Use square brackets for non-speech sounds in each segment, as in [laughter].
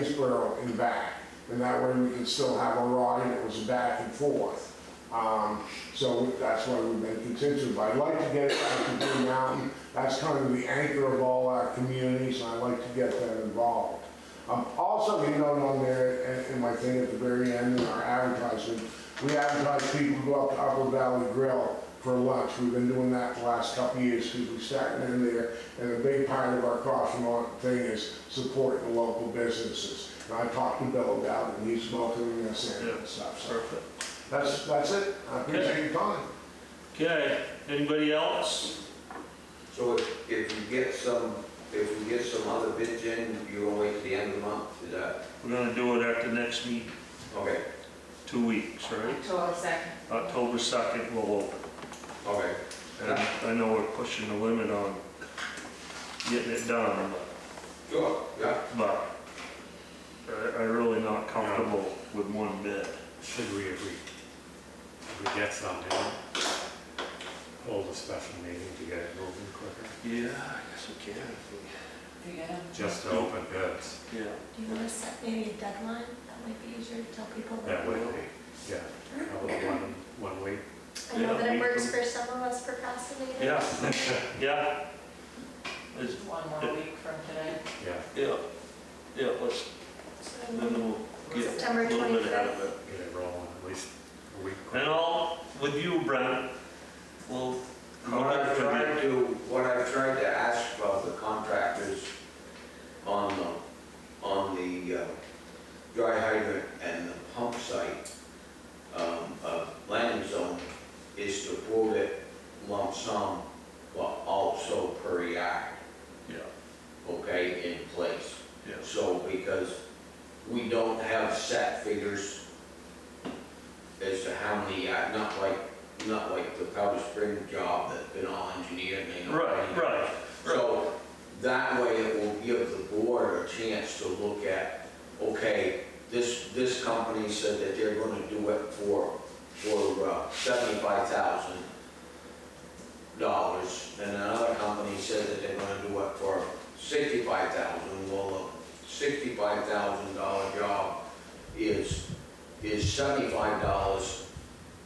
Lanesboro and back, and that way we can still have a ride and it was back and forth. Um, So that's why we've been contingent, but I'd like to get it back to Blue Mountain, that's kind of the anchor of all our communities, and I'd like to get them involved. Um, Also, you know, on there, and- and my thing at the very end, in our advertising, we advertise people go up to Upper Valley Grill for lunch. We've been doing that the last couple of years because we're starting in there. And a big part of our caution on thing is supporting the local businesses. And I talked to Bill about it, and he's welcoming us in and stuff. So Perfect. that's, that's it. I appreciate your time. Okay, anybody else? So if, if you get some, if you get some other bids in, you're gonna wait till the end of the month, is that? We're gonna do it at the next meet, Okay, two weeks, right? October second. October 2nd, we'll open. okay. And I know we're pushing the limit on getting it done, Sure, yeah. but I- I'm really not comfortable with one bid. Should we, if we, if we get some in, hold a special meeting to get it moving quicker, Yeah, I guess we can. Yeah. just to open bids? Yeah. Do you want to set maybe a deadline? That might be easier to tell people. That would be, yeah, probably one, one week. I know that Yeah, we it works can- for some of us procrastinators. Yeah, yeah. It's- One more week from today. Yeah, Yeah, yeah, let's, then So, we'll get a September little bit out of 25th. it. get it rolling at least a week. And I'll, with you, Brent, we'll go What I've after the- tried to, what I've tried to ask of the contractors on the, on the uh, dry hydrant and the pump site, um, uh, landing zone, is to quote it lump sum, but also per yard, Yeah, okay, in place. yeah. So, because we don't have set figures as to how many, uh, not like, not like the Powder Spring job that's been all engineered and they know. Right, right. So, that way it will give the board a chance to look at, okay, this, this company said that they're gonna do it for, for uh, seventy-five thousand dollars, and another company said that they're gonna do it for sixty-five thousand, well, a sixty-five thousand dollar job is, is seventy-five dollars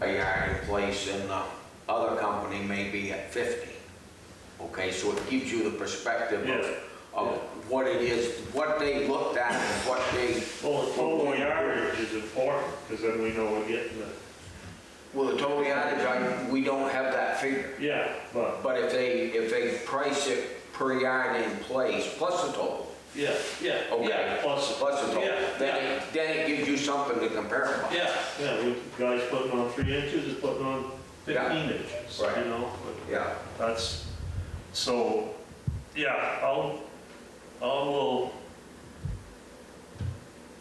a yard in place, and the other company may be at fifty. Okay, so it gives you the perspective Yeah. of, of what it is, what they looked at, and what they, Well, the total yardage is important, because then we know we're getting the, well, the total yardage, I, we don't have that figure. yeah, but, But if they, if they price it per yard in place, plus the total, yeah, yeah, yeah, Okay. plus, plus the total, Yeah, then yeah. it, then it gives you something to compare about. yeah, yeah, we, guys putting on three inches is putting on fifteen inches, you Right. know? but Yeah, That's, so, yeah, I'll, I'll, will I'll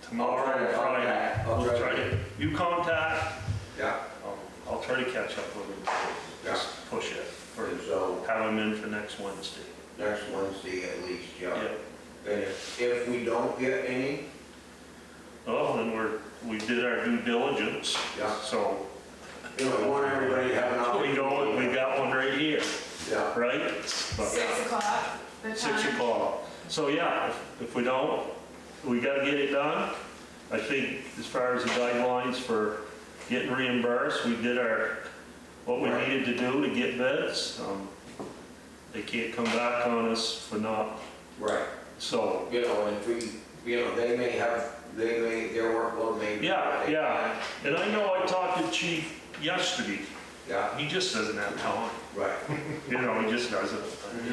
try tomorrow, Friday. to contact- I'll We'll try to- try to, you contact, yeah, I'll, I'll try to catch up with him, yeah. just push it, or And so, have him in for next Wednesday. next Wednesday at least, yeah. Yeah. And if, if we don't get any, Well, then we're, we did our due diligence. Yeah. So you know, we want everybody to have an opportunity. we go, we got one right here, Yeah, right? But Six o'clock, the time. Six o'clock. So yeah, if- if we don't, we gotta get it done. I think as far as the guidelines for getting reimbursed, we did our, what we Right. needed to do to get bids. Um, They can't come back on us for not, right, so, you know, and if we, you know, they may have, they may, their workload may. be- yeah, yeah. And I know I talked to Chief yesterday. Yeah, He just doesn't have time. right, You know, he just doesn't.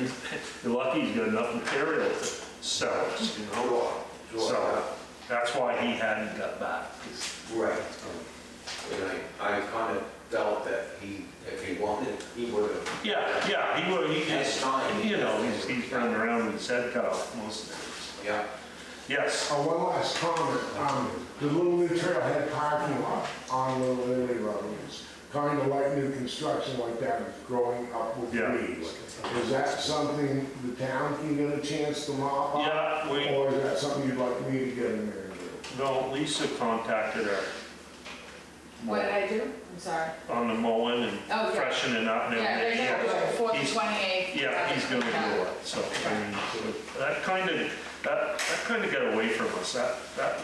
[laughs] You're lucky he's got enough material to sell us, you know? sure, sure, So, that's why he hadn't got back. 'cause, yeah, right. um, And I, I kind of felt that he, if he wanted, he would have. Yeah, yeah, he would, he That's just, fine. you know, he's, he's running around with his head cut off most of the days. Yeah, Yes, Uh, one last comment, um, the Little League Trailhead parking lot on Little League Road is kind of like new construction like that, it's growing up with Yeah. weeds. Is that something the town can get a chance to mop up? yeah, we, Or is that something you'd like me to get in there and do? no, Lisa contacted her What did I do? I'm sorry. on the mowing Oh, and yeah. freshening up and Yeah, everything. they're gonna do it, fourth, He's- twenty-eighth. Yeah, he's gonna do it, so, I mean, that kind of That, that kind of got away from us, that, that